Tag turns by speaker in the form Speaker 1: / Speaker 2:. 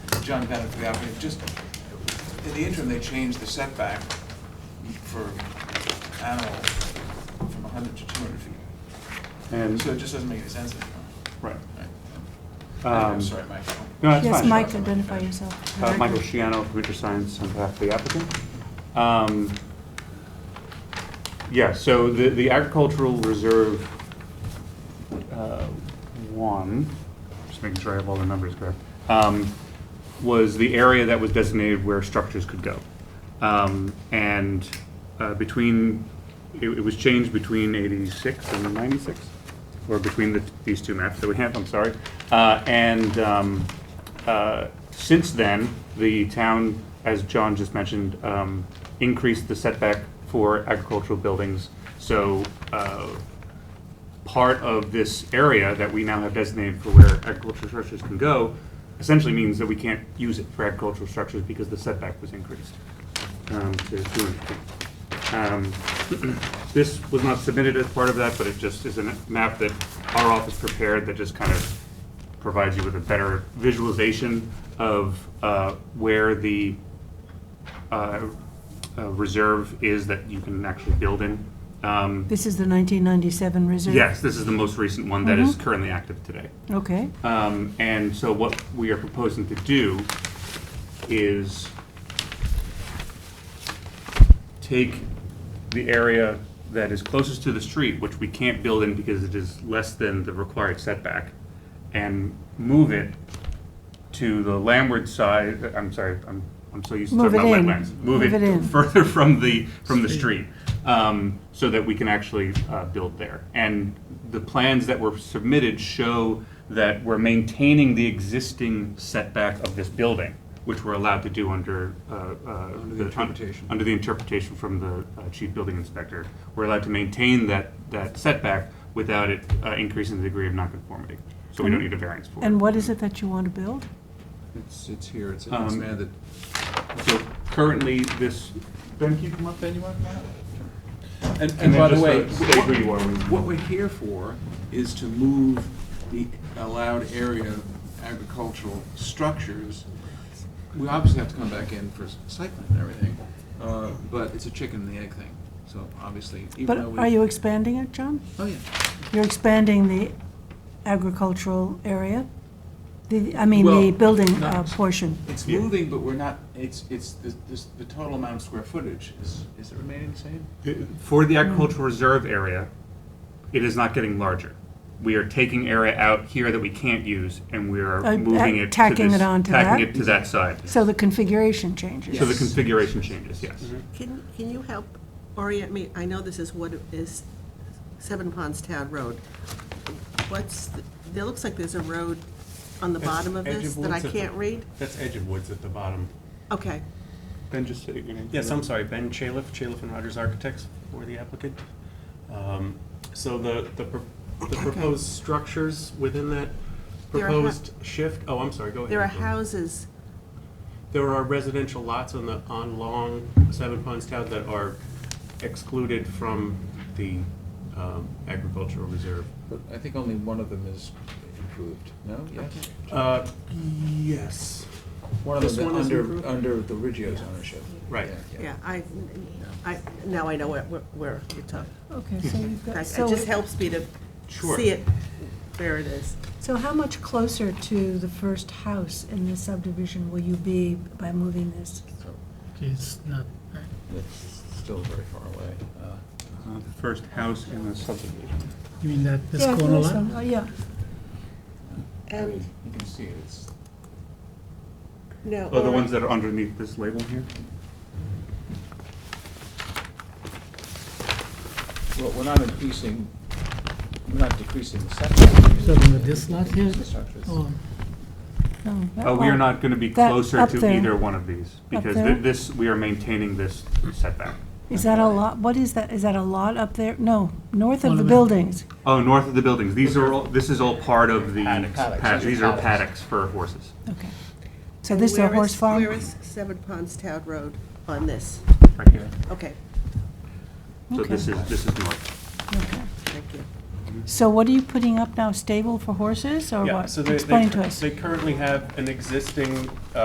Speaker 1: John Bennett for the applicant, just, in the interim, they changed the setback for animals from hundred to two hundred feet.
Speaker 2: And,
Speaker 1: So it just doesn't make any sense anymore.
Speaker 2: right.
Speaker 1: Right.
Speaker 2: Um,
Speaker 1: I'm sorry, Michael.
Speaker 2: No, that's
Speaker 3: Yes,
Speaker 2: fine.
Speaker 3: Mike, identify yourself.
Speaker 2: Uh, Michael Shiano, computer science, on behalf of the applicant. Um, Yeah, so the, the agricultural reserve, uh, one, just making sure I have all the numbers correct, um, was the area that was designated where structures could go. Um, and, uh, between, it, it was changed between eighty-six and ninety-six, or between the, these two maps that we have, I'm sorry. Uh, and, um, uh, since then, the town, as John just mentioned, um, increased the setback for agricultural buildings. So, uh, part of this area that we now have designated for where agricultural structures can go essentially means that we can't use it for agricultural structures because the setback was increased um, to 200 feet. Um, This was not submitted as part of that, but it just is a map that our office prepared that just kind of provides you with a better visualization of uh, where the uh, uh, reserve is that you can actually build in. Um,
Speaker 3: This is the 1997 reserve?
Speaker 2: Yes, this is the most recent one that
Speaker 3: Mm-hmm.
Speaker 2: is currently active today.
Speaker 3: Okay,
Speaker 2: Um, And so what we are proposing to do is take the area that is closest to the street, which we can't build in because it is less than the required setback, and move it to the landward side, I'm sorry, I'm, I'm so used to
Speaker 3: Move
Speaker 2: talking about
Speaker 3: it in.
Speaker 2: wetlands.
Speaker 3: Move it in.
Speaker 2: further from the, from the street, um, so that we can actually uh, build there. And the plans that were submitted show that we're maintaining the existing setback of this building, which we're allowed to do under. uh, Under
Speaker 1: the interpretation.
Speaker 2: Under the interpretation from the uh, chief building inspector. We're allowed to maintain that, that setback without it uh, increasing the degree of nonconformity. So we don't need a variance for it.
Speaker 3: and what is it that you want to build?
Speaker 1: It's, it's here, it's
Speaker 2: Um,
Speaker 1: expanded.
Speaker 2: So currently, this, Ben, can you come up?
Speaker 1: Then you want And,
Speaker 2: And
Speaker 1: and
Speaker 2: then
Speaker 1: by the
Speaker 2: just,
Speaker 1: way.
Speaker 2: uh, state who you are when you-
Speaker 1: What we're here for is to move the allowed area of agricultural structures. We obviously have to come back in for site plan and everything, uh, but it's a chicken and the egg thing, so obviously, even
Speaker 3: But
Speaker 1: though we.
Speaker 3: are you expanding it, John?
Speaker 1: Oh, yeah.
Speaker 3: You're expanding the agricultural area? The, I mean, the
Speaker 1: Well,
Speaker 3: building
Speaker 1: not-
Speaker 3: uh, portion?
Speaker 1: It's
Speaker 2: Yeah.
Speaker 1: moving, but we're not, it's, it's, the, this- the total amount of square footage is, is it remaining the same?
Speaker 2: For the agricultural reserve area, it is not getting larger. We are taking area out here that we can't use, and we are
Speaker 3: Uh,
Speaker 2: moving it to
Speaker 3: tacking
Speaker 2: this-
Speaker 3: it onto
Speaker 2: Tacking it
Speaker 3: that?
Speaker 2: to that side.
Speaker 3: So the configuration changes?
Speaker 2: So the configuration changes, yes.
Speaker 4: Can, can you help orient me? I know this is what is Seven Ponds Town Road. What's, the- there looks like there's a road on the
Speaker 5: That's
Speaker 4: bottom of
Speaker 5: edge of
Speaker 4: this that I
Speaker 5: woods at the-
Speaker 4: can't read?
Speaker 5: That's Edge of Woods at the bottom.
Speaker 4: Okay,
Speaker 2: Ben, just say your name.
Speaker 5: Yes, I'm sorry, Ben Chaliff, Chaliff and Rogers Architects for the applicant. Um, So the, the pro- the proposed structures within that
Speaker 4: There are hou-
Speaker 5: proposed shift, oh, I'm sorry, go ahead.
Speaker 4: there are
Speaker 5: Nicole.
Speaker 4: houses,
Speaker 5: There are residential lots on the, on Long Seven Ponds Town that are excluded from the um, agricultural reserve.
Speaker 1: I think only one of them is improved, no? Yes?
Speaker 5: Uh, Yes.
Speaker 1: One of
Speaker 5: This
Speaker 1: them
Speaker 5: one is
Speaker 1: under,
Speaker 5: improved?
Speaker 1: under the Riggio's ownership.
Speaker 5: Right.
Speaker 4: yeah, I, I, now I know where, where you're talking.
Speaker 3: Okay, so you've
Speaker 4: That-
Speaker 3: got,
Speaker 4: It
Speaker 3: so,
Speaker 4: just helps me to
Speaker 5: Sure.
Speaker 4: see it where it is.
Speaker 3: so how much closer to the first house in this subdivision will you be by moving this?
Speaker 1: So
Speaker 6: It's not,
Speaker 1: It's still very far away. Uh,
Speaker 2: Uh, The first house in the subdivision.
Speaker 6: you mean that this
Speaker 3: Yeah,
Speaker 6: corner
Speaker 3: this
Speaker 6: lot?
Speaker 3: one. Oh, yeah.
Speaker 1: I
Speaker 4: And,
Speaker 1: mean, You can see it, it's,
Speaker 4: no.
Speaker 2: Oh, the
Speaker 4: or-
Speaker 2: ones that are underneath this label here?
Speaker 1: well, we're not increasing, we're not decreasing the setback.
Speaker 6: So then this lot here,
Speaker 1: The structures.
Speaker 6: oh,
Speaker 3: No, that
Speaker 2: Uh, we are
Speaker 3: one.
Speaker 2: not gonna be
Speaker 3: That
Speaker 2: closer
Speaker 3: up
Speaker 2: to
Speaker 3: there.
Speaker 2: either one of these, because
Speaker 3: there?
Speaker 2: thi- this, we are maintaining this setback.
Speaker 3: Is that a lot, what is that, is that a lot up there? No, north of the
Speaker 6: Monument.
Speaker 3: buildings.
Speaker 2: Oh, north of the buildings, these are all, this is all part of the.
Speaker 5: Paddocks.
Speaker 2: paddocks.
Speaker 1: Paddocks.
Speaker 2: These are paddocks for horses.
Speaker 3: Okay. So
Speaker 4: and
Speaker 3: this is a
Speaker 4: where
Speaker 3: horse farm?
Speaker 4: Where is Seven Ponds Town Road on this?
Speaker 2: Right here.
Speaker 4: Okay,
Speaker 2: So this
Speaker 3: Okay.
Speaker 2: is, this is north.
Speaker 3: Okay.
Speaker 4: thank you.
Speaker 3: So what are you putting up now, stable for horses or
Speaker 5: Yeah,
Speaker 3: what?
Speaker 5: so they- they
Speaker 3: Explain
Speaker 5: cur-
Speaker 3: to us.
Speaker 5: They currently have an existing uh,